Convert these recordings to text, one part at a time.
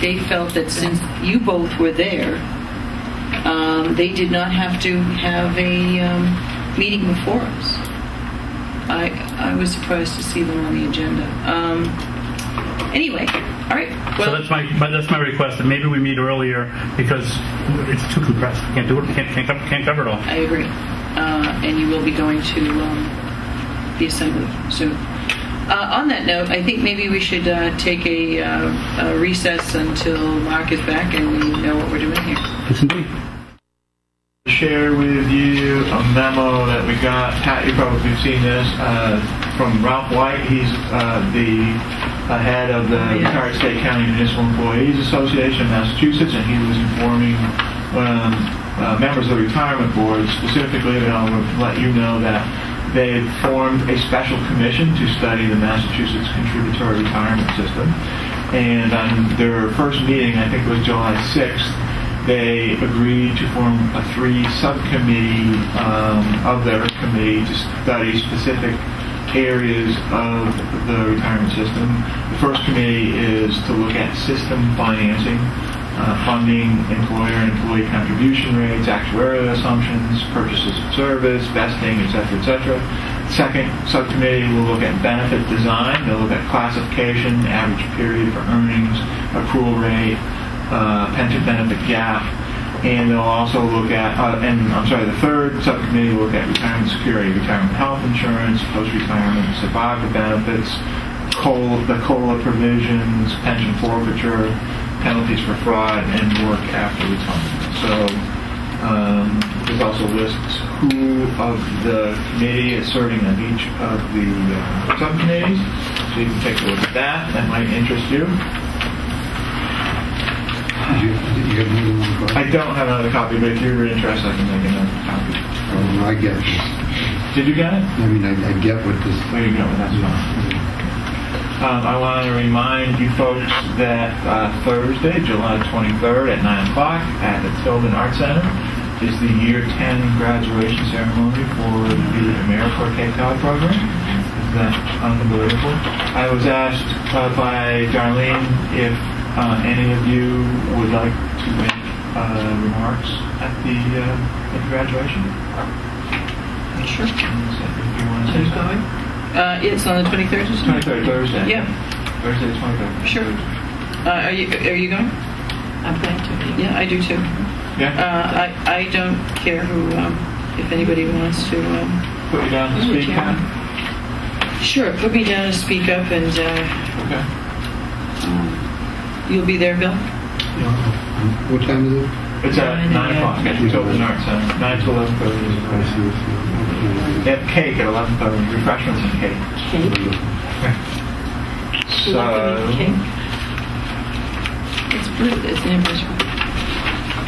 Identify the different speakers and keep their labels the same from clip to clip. Speaker 1: they felt that since you both were there, um, they did not have to have a um, meeting before us. I, I was surprised to see them on the agenda. Um, anyway, all right.
Speaker 2: So
Speaker 1: Well,
Speaker 2: that's my, my that's my request. That maybe we meet earlier because it's too compressed. We can't do it. Can't can't, cover- can't cover it all.
Speaker 1: I agree. Uh, and you will be going to um, the assembly soon. Uh, on that note, I think maybe we should uh, take a, uh, a recess until Mark is back and we know what we're doing here.
Speaker 2: Yes, indeed.
Speaker 3: share with you a memo that we got. Pat, you probably have seen this uh, from Ralph White. He's uh, the uh, head of the
Speaker 1: Yeah.
Speaker 3: retired State County Municipal Employees Association of Massachusetts, and he was informing um, uh, members of the retirement board specifically, and I'll let you know that they had formed a special commission to study the Massachusetts contributory retirement system. And on their first meeting, I think it was July 6th, they agreed to form a three subcommittee um, of their committee to study specific areas of the retirement system. The first committee is to look at system financing, uh, funding, employer and employee contribution rates, actuarial assumptions, purchases of service, vesting, et cetera, et cetera. Second subcommittee will look at benefit design. They'll look at classification, average period for earnings, accrual rate, uh, pension benefit gap, and they'll also look at, uh, and I'm sorry, the third subcommittee will look at retirement security, retirement health insurance, post-retirement survivor benefits, COLA, the COLA provisions, pension forfeiture, penalties for fraud, and work after retirement. So um, this also lists who of the committee is serving on each of the uh, subcommittees, so you can take a look at that, that might interest you.
Speaker 4: Did you, did you have another one, Bob?
Speaker 3: I don't have another copy, but if you were interested, I can make another copy.
Speaker 4: Um, I get this.
Speaker 3: Did you get it?
Speaker 4: I mean, I, I get what this.
Speaker 3: There you go, that's fine. Um, I want to remind you folks that uh, Thursday, July 23rd at 9 o'clock at the Tilden Art Center is the Year 10 graduation ceremony for the AmeriCorps Cape Cod program. Is that unbelievable? I was asked uh, by Darlene if uh, any of you would like to make uh, remarks at the, uh, at the graduation.
Speaker 1: Sure.
Speaker 3: If you want to say something.
Speaker 1: Uh, it's on the 23rd, isn't it?
Speaker 3: 23rd, Thursday.
Speaker 1: Yeah.
Speaker 3: Thursday, 23rd.
Speaker 1: Sure. Uh, are you are you going? I'm going to. Yeah, I do too. Uh,
Speaker 3: Yeah,
Speaker 1: I I don't care who um, if anybody wants to. Um,
Speaker 3: put you down to
Speaker 1: Ooh,
Speaker 3: speak,
Speaker 1: Karen.
Speaker 3: Pat.
Speaker 1: sure, put me down to speak up, and uh,
Speaker 3: Okay.
Speaker 1: you'll be there, Bill.
Speaker 4: What time is it?
Speaker 3: It's at
Speaker 1: Nine
Speaker 3: 9 o'clock,
Speaker 1: a.m.
Speaker 3: at the Tilden Arts Center, 9 to 11:30. is the
Speaker 4: I
Speaker 3: class.
Speaker 4: see it's-
Speaker 3: They have cake at 11:30, refreshments and cake. So,
Speaker 1: It's blue. It's an impression.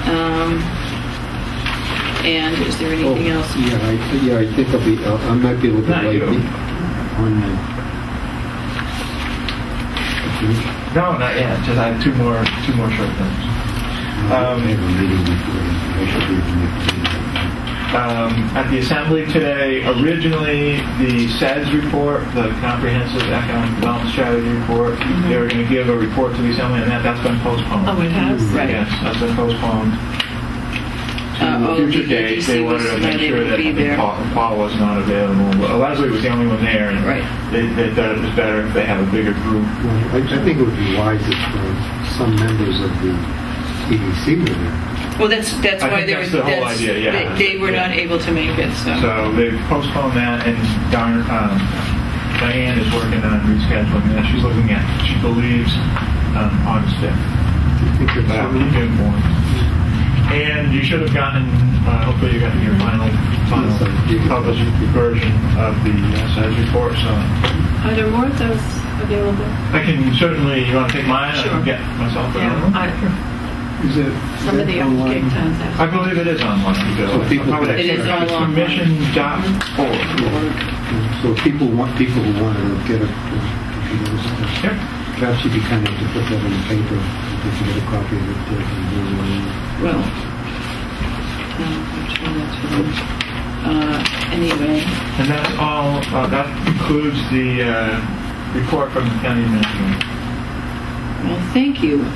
Speaker 1: Um, and is there
Speaker 4: Oh,
Speaker 1: anything else?
Speaker 4: Yeah, I, yeah, I think I'll be, I'll- I might be a little
Speaker 3: Not
Speaker 4: bit late.
Speaker 3: you.
Speaker 4: On the. I think,
Speaker 3: no, not yet, just I have two more, two more short things.
Speaker 4: I
Speaker 3: Um,
Speaker 4: have a meeting before then. I should be in the-
Speaker 3: um, at the assembly today, originally the SEDS report, the Comprehensive Economic Development Strategy report, they were going to give a report to the assembly, and that, that's been postponed.
Speaker 5: Oh, it has?
Speaker 1: Right.
Speaker 3: Yes, that's been postponed
Speaker 1: Uh,
Speaker 3: to
Speaker 1: oh,
Speaker 3: a future
Speaker 1: the
Speaker 3: date. They
Speaker 1: EDC was-
Speaker 3: wanted to
Speaker 1: no,
Speaker 3: make
Speaker 1: they
Speaker 3: sure
Speaker 1: would
Speaker 3: that
Speaker 1: be
Speaker 3: I think
Speaker 1: there.
Speaker 3: Paul Paul was not available. Well, Leslie was the only one there, and
Speaker 1: Right.
Speaker 3: they they thought it was better if they have a bigger group.
Speaker 4: Well, I, I think it would be wise if uh, some members of the EDC were there.
Speaker 1: Well, that's that's
Speaker 3: I
Speaker 1: why they
Speaker 3: think that's
Speaker 1: were
Speaker 3: the whole
Speaker 1: that's-
Speaker 3: idea, yeah.
Speaker 1: they, they were
Speaker 3: Yeah.
Speaker 1: not able to make it.
Speaker 3: So they've postponed that, and darn, um, Diane is working on rescheduling that. She's looking at, she believes, um, August 5th.
Speaker 4: Do you think there's
Speaker 3: But I'll
Speaker 4: some-
Speaker 3: keep you informed. And you should have gotten, uh, hopefully you got your final, final
Speaker 4: Yes, I did.
Speaker 3: published version of the uh, size report, so
Speaker 5: Are there more of those available?
Speaker 3: I can certainly, you want to take mine? I
Speaker 5: Sure.
Speaker 3: can get myself
Speaker 5: Yeah,
Speaker 3: another one.
Speaker 5: I-
Speaker 4: Is it-
Speaker 5: some of the
Speaker 4: is it
Speaker 5: other
Speaker 4: online?
Speaker 5: Cape Towns have.
Speaker 3: I believe it is online. Bill.
Speaker 4: So people-
Speaker 3: Probably
Speaker 1: It is
Speaker 3: that's
Speaker 1: online.
Speaker 3: Commission.org.
Speaker 4: So if people want, people who want to get a uh, computer, stuff,
Speaker 3: Yep.
Speaker 4: perhaps you'd be kind enough to put that in the paper, if you can get a copy of it. uh, and do it online.
Speaker 1: Well, um, I'm trying not to, uh, anyway,
Speaker 3: And that's all, uh, that concludes the uh, report from the county administrator.
Speaker 1: Well, thank you.